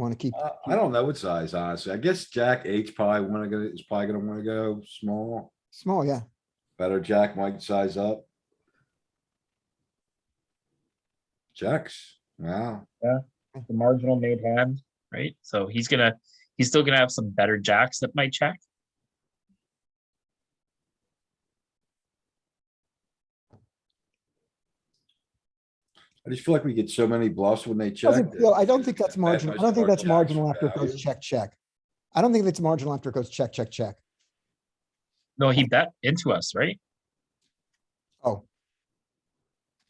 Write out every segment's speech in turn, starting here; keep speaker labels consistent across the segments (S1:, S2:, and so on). S1: Want to keep,
S2: Uh, I don't know what size, honestly. I guess jack eight's probably wanna go, is probably gonna wanna go small.
S1: small, yeah.
S2: Better jack might size up. Checks, wow.
S3: the marginal made hand, right? So he's gonna, he's still gonna have some better jacks that might check.
S2: I just feel like we get so many bluffs when they check.
S1: Doesn't
S2: that
S1: feel- I don't
S2: it's
S1: think
S2: just
S1: that's
S2: that
S1: marginal.
S2: much
S1: I don't think that's
S2: margin
S1: marginal after it
S2: value.
S1: goes check, check. I don't think it's marginal after it goes check, check, check.
S3: No, he bet into us, right?
S1: Oh.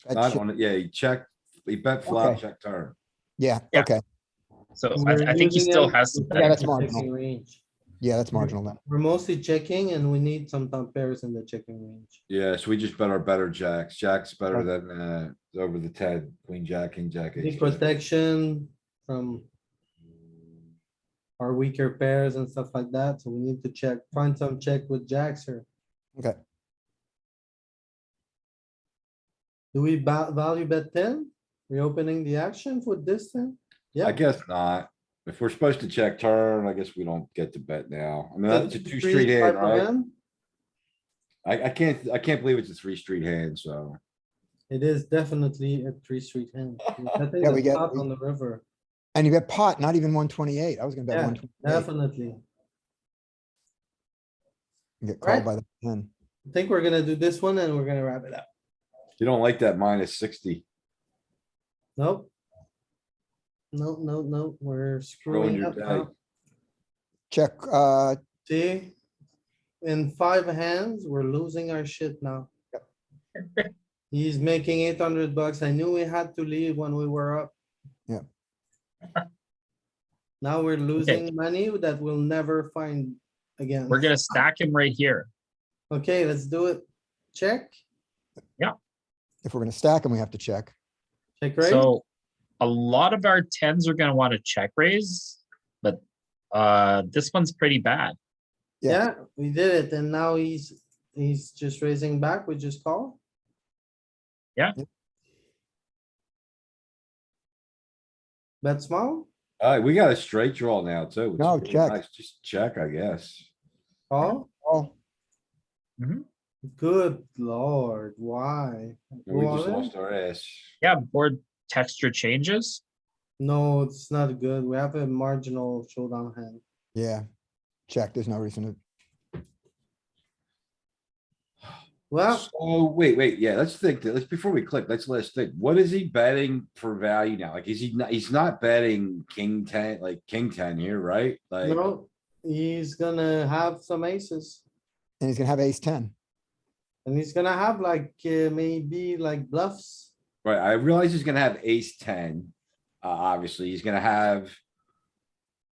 S1: That
S2: Not
S1: shit-
S2: on it, yeah, he checked, he bet flop,
S1: Okay.
S2: check turn.
S1: Yeah,
S3: Yeah.
S1: okay.
S3: So
S4: And
S3: I,
S4: we're
S3: I think he
S4: using
S3: still
S4: them
S3: has some
S4: to
S1: Yeah,
S3: betting.
S1: that's
S4: check the
S1: marginal.
S4: checking range.
S1: Yeah, that's marginal then.
S4: We're mostly checking and we need some top pairs in the checking range.
S2: Yeah, so we just bet our better jacks. Jack's better than, uh, over the ten, queen, jack, king, jack.
S4: The
S2: ace, jack.
S4: protection from our weaker pairs and stuff like that, so we need to check, find some check with jacks here.
S1: Okay.
S4: Do we ba- value bet ten? Reopening the action with this thing?
S2: I
S4: Yeah.
S2: guess not. If we're supposed to check turn, I guess we don't get to bet now.
S1: uh,
S2: I mean, that's a two
S4: Three,
S2: street hand,
S4: five of
S2: right?
S4: them?
S2: I, I can't, I can't believe it's a three street hand, so.
S4: It is definitely a three street hand. I think
S1: Yeah, we
S4: it's
S1: get-
S4: top
S1: we-
S4: on the river,
S1: And you bet pot, not even one twenty-eight. I was gonna bet
S4: Yeah,
S1: one twenty-eight.
S4: definitely.
S1: Get
S4: right.
S1: called by the ten.
S4: I think we're gonna do this one and we're gonna wrap it up.
S2: You don't like that minus sixty,
S4: Nope. No, no, no, we're
S2: ruin
S4: screwing
S2: your
S4: up
S2: day.
S4: now.
S1: Check, uh,
S4: See? In five hands, we're losing our shit now. He's making eight hundred bucks. I knew we had to leave when we were up.
S1: Yeah.
S4: Now we're losing money that we'll never find again.
S3: We're gonna stack him right here.
S4: Okay, let's do it. Check,
S1: if we're gonna stack them, we have to check.
S4: check raise.
S3: So a lot of our tens are gonna wanna check raise, but uh, this one's pretty bad.
S4: Yeah, we did it and now he's, he's just raising back. We just call.
S3: Yeah.
S1: Yep.
S4: Bet small,
S2: Alright, we got a straight draw now too. which is
S1: No,
S2: really
S1: check.
S2: nice. Just check, I guess.
S4: call.
S1: Oh,
S4: Good lord, why?
S2: And We just
S4: Wallet?
S2: lost our ass.
S3: Yeah, board texture changes.
S4: No, it's not good. We have a marginal showdown hand.
S1: yeah. Check. There's no reason to,
S4: Well,
S2: So, wait, wait, yeah, let's think, let's, before we click, let's, let's think, what is he betting for value now? Like, is he not, he's not betting king ten, like king ten here, right? Like,
S4: no, he's gonna have some aces.
S1: and he's gonna have ace ten.
S4: And he's gonna have like, uh, maybe like bluffs.
S2: right, I realize he's gonna have ace ten. Uh, obviously, he's gonna have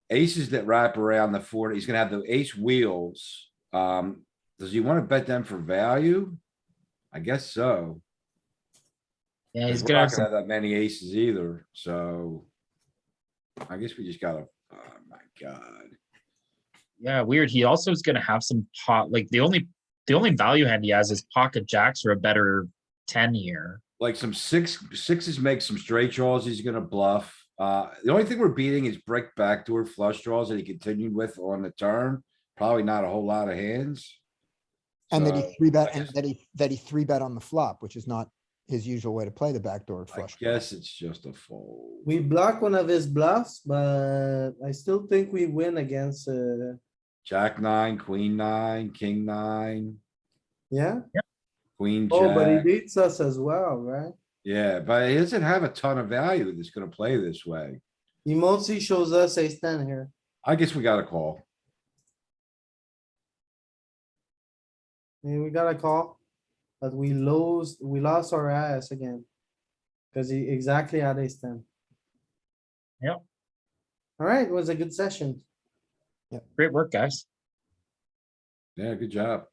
S2: aces that wrap around the forty, he's gonna have the ace wheels. Um, does he wanna bet them for value? I guess so.
S3: Yeah, he's
S2: We're
S3: gonna
S2: not
S3: have
S2: gonna
S3: some,
S2: have that many aces either, so. I guess we just gotta, oh my god.
S3: yeah, weird. He also is gonna have some pot, like the only, the only value hand he has is pocket jacks or a better ten here.
S2: like some six, sixes make some straight draws, he's gonna bluff. Uh, the only thing we're beating is brick backdoor flush draws that he continued with on the turn, probably not a whole lot of hands.
S1: And that
S2: So,
S1: he three
S2: I
S1: bet, and
S2: guess-
S1: that he, that he three bet on the flop, which is not his usual way to play the backdoor
S2: I
S1: flush.
S2: guess it's just a fold.
S4: We block one of his bluffs, but I still think we win against, uh,
S2: Jack nine, queen nine, king nine,
S4: yeah?
S2: queen
S4: Oh, but he
S2: jack.
S4: beats us as well, right?
S2: Yeah, but he doesn't have a ton of value that's gonna play this way.
S4: He mostly shows us ace ten here.
S2: I guess we got a call.
S4: Yeah, we got a call, but we lose, we lost our ass again. Cause he exactly had ace ten.
S3: Yep.
S4: Alright, it was a good session.
S3: Great work, guys.
S2: Yeah, good job.